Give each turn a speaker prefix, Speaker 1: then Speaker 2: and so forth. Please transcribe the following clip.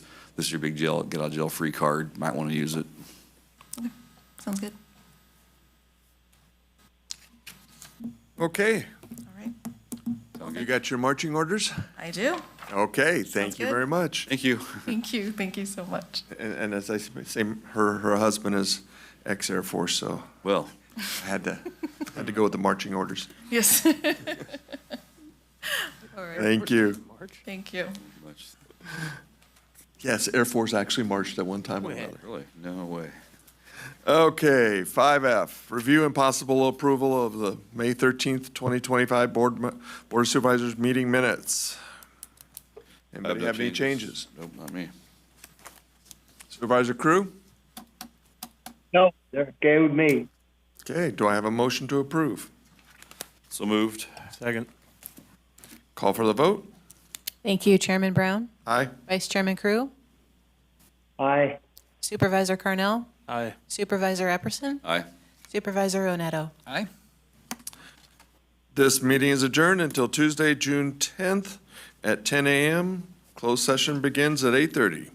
Speaker 1: this is your big jail, get out of jail free card, might want to use it.
Speaker 2: Sounds good.
Speaker 3: Okay,
Speaker 2: All right.
Speaker 3: you got your marching orders?
Speaker 2: I do.
Speaker 3: Okay, thank
Speaker 2: Sounds
Speaker 3: you
Speaker 2: good.
Speaker 3: very much.
Speaker 1: Thank you.
Speaker 2: Thank you. Thank you so much.
Speaker 3: And, and as I s- say, her, her husband is ex-Air Force, so
Speaker 1: Well,
Speaker 3: I had to, had to go with the marching orders.
Speaker 2: Yes. All right.
Speaker 3: Thank you.
Speaker 2: Thank you.
Speaker 1: much,
Speaker 3: Yes, Air Force actually marched at one time or another.
Speaker 1: really, no way.
Speaker 3: Okay, five F, review and possible approval of the May thirteenth, twenty twenty-five Board, Mi- Board of Supervisors meeting minutes.
Speaker 1: I
Speaker 3: Anybody
Speaker 1: no
Speaker 3: have any changes?
Speaker 1: Nope, not me.
Speaker 3: Supervisor Crew?
Speaker 4: No, they're okay with me.
Speaker 3: Okay, do I have a motion to approve?
Speaker 1: So moved.
Speaker 3: Second. Call for the vote?
Speaker 5: Thank you, Chairman Brown,
Speaker 3: Aye.
Speaker 5: Vice Chairman Crew,
Speaker 4: Aye.
Speaker 5: Supervisor Carnell. Aye. Supervisor Epperson,
Speaker 1: Aye.
Speaker 5: Supervisor Onetto.
Speaker 1: Aye.
Speaker 3: This meeting is adjourned until Tuesday, June tenth at ten AM. Closed session begins at eight thirty.